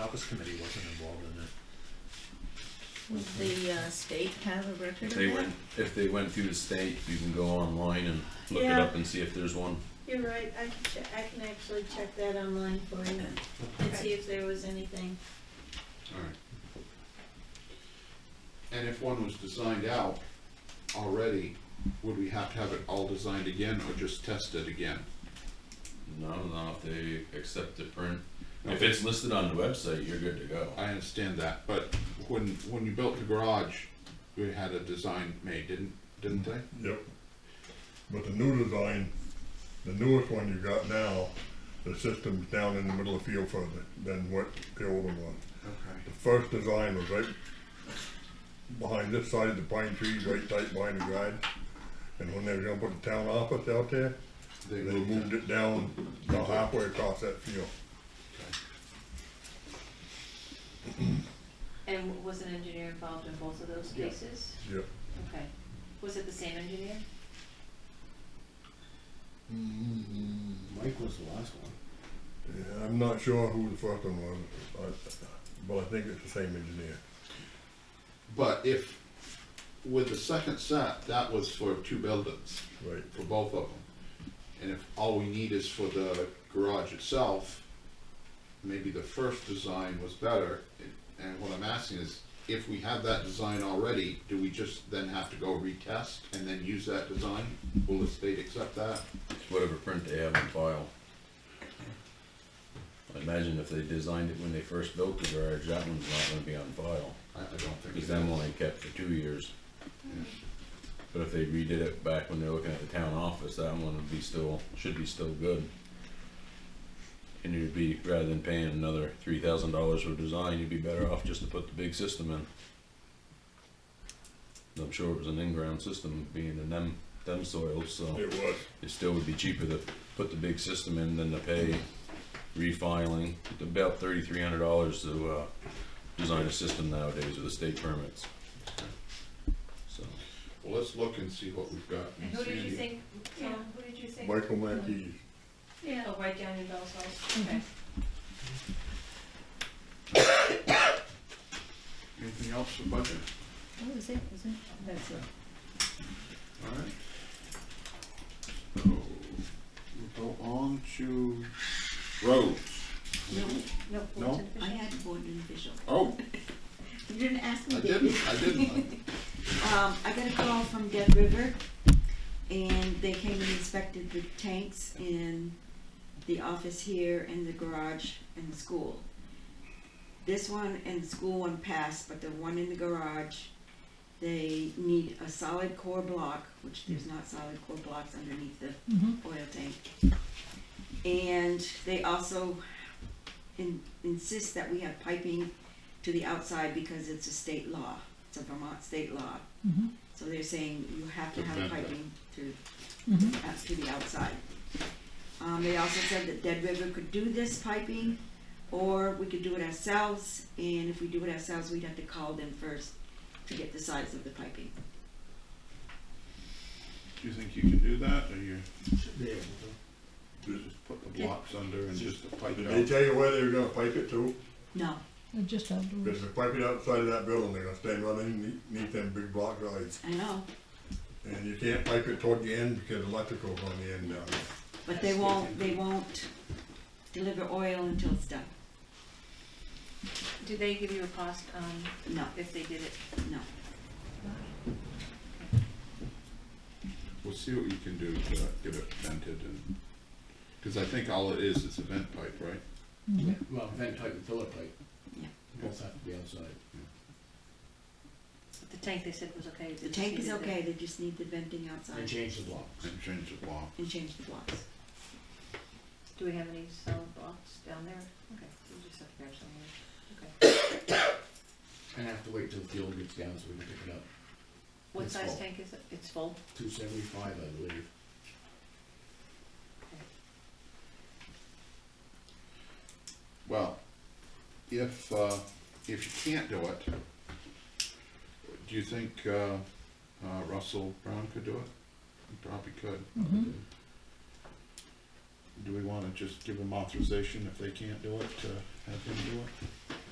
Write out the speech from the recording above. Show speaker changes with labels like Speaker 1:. Speaker 1: Caucus Committee wasn't involved in it.
Speaker 2: Would the uh, state have a record
Speaker 3: If
Speaker 2: of
Speaker 3: they
Speaker 2: that?
Speaker 3: went, if they went through the state, you can go online and look it
Speaker 4: Yeah.
Speaker 3: up and see if there's one.
Speaker 4: You're right, I can check, I can actually check that online for you and see if there was anything.
Speaker 5: Alright. And if one was designed out already, would we have to have it all designed again or just test it again?
Speaker 3: No, no, if they accept the print. If it's listed on the website, you're good to go.
Speaker 5: I understand that, but when, when you built the garage, we had a design made, didn't, didn't they?
Speaker 6: Yep. But the new design, the newest one you got now, the system's down in the middle of the field further than what the older one. The
Speaker 5: Okay.
Speaker 6: first design was right behind this side of the pine trees, right tight behind the guide. And when they were gonna put the town office out there,
Speaker 5: They
Speaker 6: they
Speaker 5: moved
Speaker 6: moved
Speaker 5: it.
Speaker 6: it down about halfway across that field.
Speaker 7: And was an engineer involved in both of those
Speaker 5: Yeah.
Speaker 7: cases?
Speaker 6: Yep.
Speaker 7: Okay. Was it the same engineer?
Speaker 8: Mike was the last one.
Speaker 6: Yeah, I'm not sure who the first one was, I- but I think it's the same engineer.
Speaker 5: But if, with the second set, that was for two buildings,
Speaker 6: Right.
Speaker 5: for both of them. And if all we need is for the garage itself, maybe the first design was better. And what I'm asking is, if we have that design already, do we just then have to go retest and then use that design? Will the state accept that?
Speaker 3: Whatever print they have on file. I imagine if they designed it when they first built the garage, that one's not gonna be on file.
Speaker 5: I, I don't think.
Speaker 3: Because
Speaker 5: it
Speaker 3: that
Speaker 5: is.
Speaker 3: one they kept for two years.
Speaker 5: Yeah.
Speaker 3: But if they redid it back when they're looking at the town office, that one would be still, should be still good. And you'd be, rather than paying another three thousand dollars for design, you'd be better off just to put the big system in. I'm sure it was an in-ground system being in them, them soils, so
Speaker 6: It was.
Speaker 3: it still would be cheaper to put the big system in than to pay refiling. It's About thirty-three hundred dollars to, uh, design a system nowadays with the state permits. So,
Speaker 5: Well, let's look and see what we've got.
Speaker 7: And who did you
Speaker 5: Sandy.
Speaker 7: think, Tom, who did you think?
Speaker 6: Michael Mackey's
Speaker 4: Yeah.
Speaker 7: Oh, right down in Bell's house,
Speaker 4: Mm-hmm.
Speaker 7: okay.
Speaker 5: Anything else for budget?
Speaker 2: What was it, was it? That's it.
Speaker 5: Alright. So, we'll go on to roads.
Speaker 4: No,
Speaker 5: No?
Speaker 4: boards and
Speaker 2: I
Speaker 4: officials.
Speaker 2: had board and official.
Speaker 5: Oh,
Speaker 2: You didn't ask
Speaker 5: I
Speaker 2: me, did you?
Speaker 5: didn't, I didn't.
Speaker 2: Um, I got a call from Dead River, and they came and inspected the tanks in the office here, and the garage, and the school. This one and the school one passed, but the one in the garage, they need a solid core block, which there's not solid core blocks underneath the oil tank. And they also in- insist that we have piping to the outside because it's a state law, it's a Vermont state law. So they're saying you have to
Speaker 5: To
Speaker 2: have
Speaker 5: vent that.
Speaker 2: piping to, out to the outside. Um, they also said that Dead River could do this piping, or we could do it ourselves, and if we do it ourselves, we'd have to call them first to get the size of the piping.
Speaker 5: Do you think you can do that, or you
Speaker 8: Should be able to.
Speaker 5: you just put the blocks under and just pipe it
Speaker 6: Did they
Speaker 5: out?
Speaker 6: tell you where they were gonna pipe it to?
Speaker 2: No,
Speaker 9: Just outdoors.
Speaker 6: Because if they pipe it outside of that building, they're gonna stay running underneath them big block guides.
Speaker 2: I know,
Speaker 6: And you can't pipe it toward the end because electrical's on the end down there.
Speaker 2: but they won't, they won't deliver oil until it's done.
Speaker 7: Did they give you a cost, um,
Speaker 2: No,
Speaker 7: if they did it?
Speaker 2: no.
Speaker 5: We'll see what you can do to get it vented and, cause I think all it is, is a vent pipe, right?
Speaker 8: Well, vent pipe and filler pipe.
Speaker 2: Yeah.
Speaker 8: Both have to be outside.
Speaker 7: The tank they said was okay.
Speaker 2: The tank is okay, they just need the venting
Speaker 8: And
Speaker 2: outside
Speaker 8: change the blocks.
Speaker 5: And change the block.
Speaker 2: and change the blocks.
Speaker 7: Do we have any solid blocks down there? Okay, we just have to grab somewhere, okay.
Speaker 8: And have to wait till the fuel gets down so we can pick it up.
Speaker 7: What
Speaker 8: It's
Speaker 7: size
Speaker 8: full.
Speaker 7: tank is it? It's full?
Speaker 8: Two seventy-five, I believe.
Speaker 5: Well, if, uh, if you can't do it, do you think, uh, uh, Russell Brown could do it? He probably could.
Speaker 9: Mhm.
Speaker 5: Do we wanna just give them authorization if they can't do it, to have him do it?